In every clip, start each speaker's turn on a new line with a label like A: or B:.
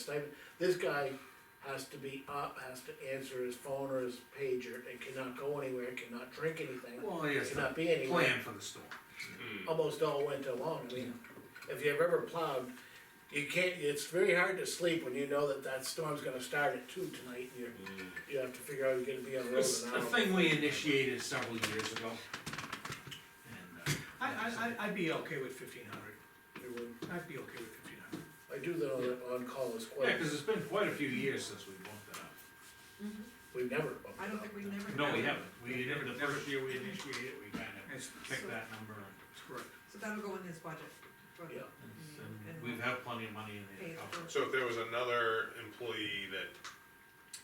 A: stipend, this guy has to be up, has to answer his phone or his pager, and cannot go anywhere, cannot drink anything.
B: Well, he has
A: Cannot
B: a
A: be anywhere.
B: plan for the storm.
A: almost all winter long, I mean, if you've ever plowed, you can't, it's very hard to sleep when you know that that storm's gonna start at two tonight, and you're, you have to figure out you're gonna be on the road
B: Mm. It's
A: an
B: a
A: hour.
B: thing we initiated several years ago. And, uh,
C: I, I, I'd be okay with fifteen hundred,
A: It would-
C: I'd be okay with fifteen hundred.
A: I do know that on-call is
B: Yeah,
A: quite,
B: cause it's been quite a few years since we bumped it up.
A: we've never bumped it
D: Mm-hmm. I don't
A: up.
D: think we've never.
B: No, we haven't. We, never- the first year we initiated, it, we kinda
C: That's,
B: picked that number and-
C: that's correct.
D: So that'll go in his budget. for the-
A: Yeah.
B: and we've had plenty of money in
D: Pay
B: the
D: it
B: account.
D: Mm, for-
E: So if there was another employee that,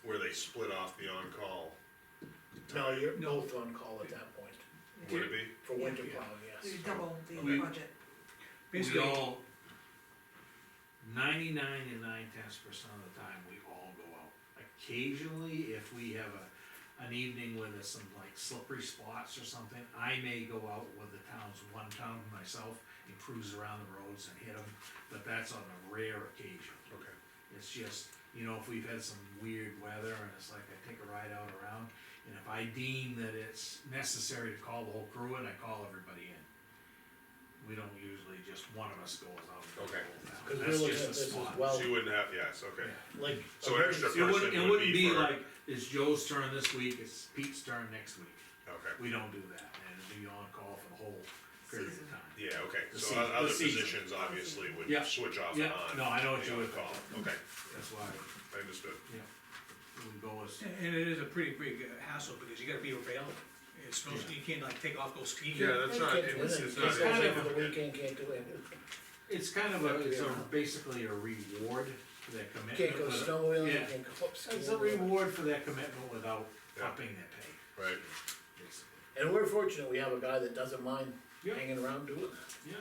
E: where they split off the on-call,
A: No, you're both on-call at that point,
D: yeah.
E: would it be?
A: for
D: Yeah.
A: winter
C: Yeah.
A: plowing,
D: So
A: yes.
D: you double
B: We-
D: the budget.
B: We
C: Basically,
B: all, ninety-nine and nine tenths percent of the time, we all go out. Occasionally, if we have a, an evening where there's some like slippery spots or something, I may go out with the town's one town myself and cruise around the roads and hit them, but that's on a rare occasion.
E: Okay.
B: It's just, you know, if we've had some weird weather and it's like I take a ride out around, and if I deem that it's necessary to call the whole crew in, I call everybody in. We don't usually, just one of us goes out. and
E: Okay.
A: Cause
B: goes
A: we're
B: That's
A: looking at
B: just a
A: this as
B: spot.
A: well,
E: So you wouldn't have, yes, okay.
B: Yeah.
A: like. a
E: So an
A: very-
E: extra
B: It wouldn't,
E: person
B: it
E: would
B: wouldn't be
E: be for-
B: like, it's Joe's turn this week, it's Pete's turn next week.
E: Okay,
B: We don't do that, and it'd be on call for the whole period of
D: Season.
B: time.
E: yeah, okay,
B: The season-
E: so o-
B: the
E: other
B: season.
E: positions obviously would
B: Yeah.
E: switch off and
B: Yeah,
E: on.
B: no, I know what
E: the
B: you would
E: on-call.
B: call,
E: Okay,
B: that's why,
E: I understood,
B: yeah, we go as.
C: and- and it is a pretty big uh, hassle, because you gotta be available. It's no,
B: Yeah.
C: you can't like take off, go skiing.
E: Yeah, that's
A: you
E: not-
A: can't do
E: it was-
A: anything.
E: it's not-
A: Just goes
B: it's
A: in for
E: not-
A: the weekend, can't do anything,
B: It's kind of a, it's a,
A: Oh, Yeah.
B: basically a reward for their commitment.
A: can't go
B: with-
A: snowmobiling,
B: Yeah.
A: can't go up skiing.
B: It's a reward for their commitment without
E: Yeah.
B: upping their pay,
E: right,
B: basically.
A: And we're fortunate, we have a guy that doesn't mind
B: Yeah.
A: hanging around doing that.
B: Yeah.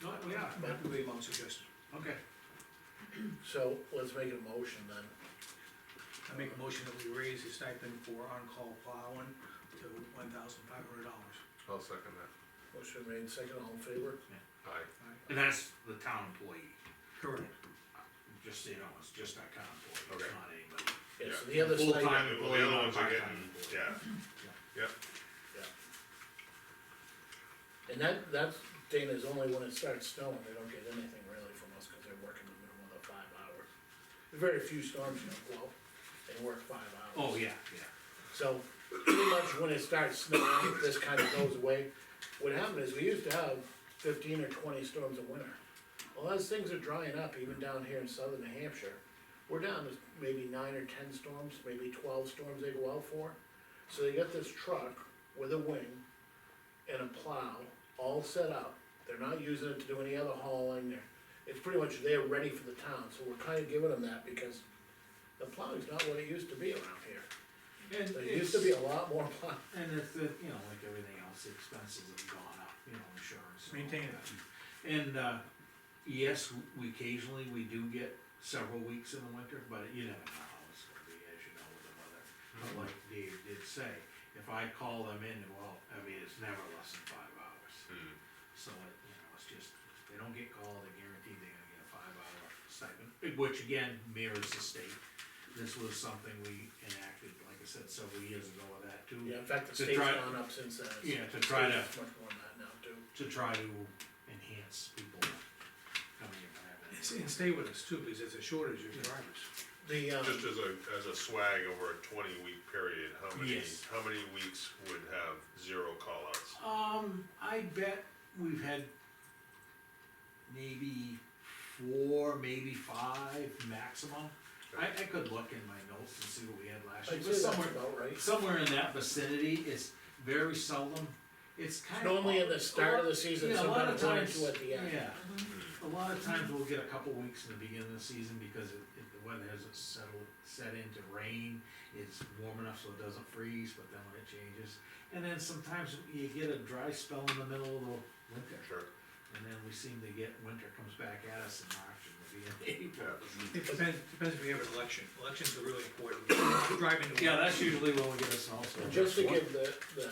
B: No, we are,
C: That'd be my suggestion.
B: okay.
A: So let's make a motion then.
C: I make a motion that we raise the stipend for on-call plowing to one thousand five hundred dollars.
E: I'll second that,
A: Motion made second, all in favor?
E: aye,
B: And that's the town employee,
C: Correct.
B: just so you know, it's just our town employee,
E: Okay.
B: it's not anybody.
A: Yeah, so
E: Yeah.
A: the other
B: Full
A: side,
B: time.
E: well, the other ones are
B: Part-time
E: getting,
B: employee.
E: yeah, yeah,
A: and that, that's, Dana's only when it starts snowing, they don't get anything really from us, cause they're working the minimum of five hours. Very few storms, you know, well, they work five hours.
B: Oh, yeah, yeah.
A: So pretty much when it starts snowing, this kind of goes away. What happened is we used to have fifteen or twenty storms a winter. Well, as things are drying up, even down here in southern New Hampshire, we're down to maybe nine or ten storms, maybe twelve storms they go out for. So they got this truck with a wing and a plow all set up. They're not using it to do any other hauling there. It's pretty much they're ready for the town, so we're kinda giving them that because the plowing's not what it used to be around here.
B: And
A: There used to be a lot more plow.
B: And it's, uh, you know, like everything else, the expenses have gone up, you know, insurance. and all
C: Maintain it.
B: that. And, uh, yes, w- we occasionally, we do get several weeks in the winter, but you never know how it's gonna be, as you know, with the weather. But
C: Mm-hmm.
B: like Dave did say, if I call them in, well, I mean, it's never less than five hours.
C: Hmm.
E: Mm.
B: So it, you know, it's just, if they don't get called, they're guaranteed they're gonna get a five hour stipend, which again mirrors the state. This was something we enacted, like I said, several years ago with that too.
A: Yeah, in fact, the
B: To
A: state's
B: try-
A: gone up since then. It's-
B: Yeah, to try to,
A: it's Much more than that now too.
B: to try to enhance people coming in and having.
C: And s- And stay with us too, because there's a shortage of drivers.
A: The,
E: just
A: um,
E: as a, as a swag over a twenty-week period, how many,
B: Yes.
E: how many weeks would have zero call-outs?
B: Um, I bet we've had maybe four, maybe five maximum. I, I could look in my notes and see what we had last year,
A: I'd say that's
B: but somewhere,
A: about right.
B: somewhere in that vicinity, it's very seldom, it's kind of.
A: Normally in the start of the season,
B: Yeah, a lot of
A: sometimes one or
B: times,
A: two at the end.
B: yeah, a lot of times we'll get a couple weeks in the beginning of the season because it, it, the weather hasn't settled, set into rain. It's warm enough so it doesn't freeze, but then when it changes, and then sometimes you get a dry spell in the middle of the winter.
E: Sure,
B: And then we seem to get, winter comes back at us in March and we'll be in
E: yeah,
B: April.
C: It depends, depends if we have an election. Elections are really important. Driving to.
B: Yeah, that's usually when we get a
A: And
B: snowstorm.
A: just to give the, the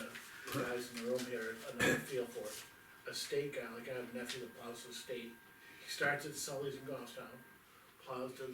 A: the guys in the room here another feel for it, a state guy, like I have a nephew that plows the state. He starts at Sully's in Goffstown, plows to the